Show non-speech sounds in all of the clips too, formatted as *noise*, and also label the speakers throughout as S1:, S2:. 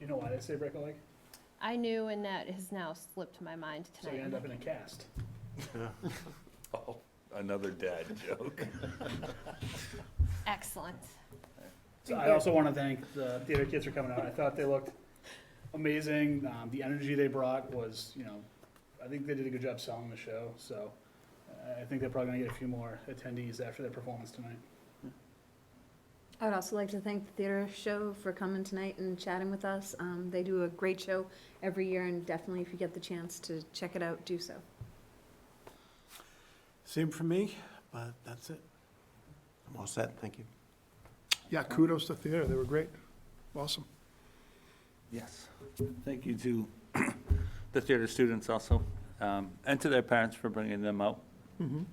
S1: You know why they say break a leg?
S2: I knew, and that has now slipped my mind
S1: So you
S2: tonight.
S1: end up in a cast.
S3: *laughs* Oh, Another dad joke.
S2: Excellent.
S1: So I also want to thank the theater kids for coming out. I thought they looked amazing. Um, the energy they brought was, you know, I think they did a good job selling the show. So uh, I think they're probably going to get a few more attendees after their performance tonight.
S4: I would also like to thank the theater show for coming tonight and chatting with us. Um, they do a great show every year and definitely if you get the chance to check it out, do so.
S5: Same for me, but that's it. I'm all set, thank you.
S6: Yeah, kudos to theater, they were great, awesome.
S3: Yes. Thank you to *clears throat* the theater students also, um, and to their parents for bringing them out on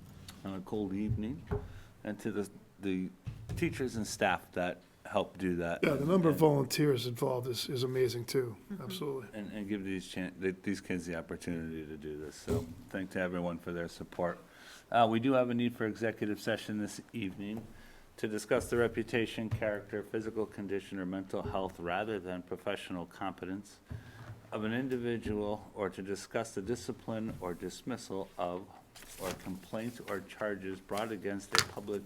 S3: a cold evening, and to the, the teachers and staff that help do that.
S6: Yeah, the number of
S3: and-
S6: volunteers involved is, is amazing too, absolutely.
S3: And, and give these chan, th- these kids the opportunity to do this, so thank to everyone for their support. Uh, we do have a need for executive session this evening to discuss the reputation, character, physical condition, or mental health rather than professional competence of an individual, or to discuss the discipline or dismissal of, or complaints or charges brought against a public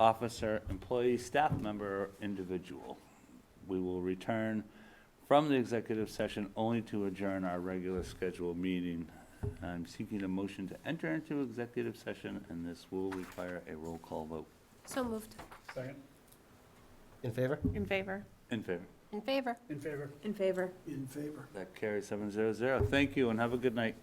S3: officer, employee, staff member, or individual. We will return from the executive session only to adjourn our regular scheduled meeting. I'm seeking a motion to enter into executive session, and this will require a roll call vote.
S2: So moved.
S1: Second,
S7: In favor?
S2: In favor.
S3: In favor?
S2: In favor.
S1: in favor?
S4: In favor?
S5: In favor.
S3: That carries seven zero zero. Thank you, and have a good night.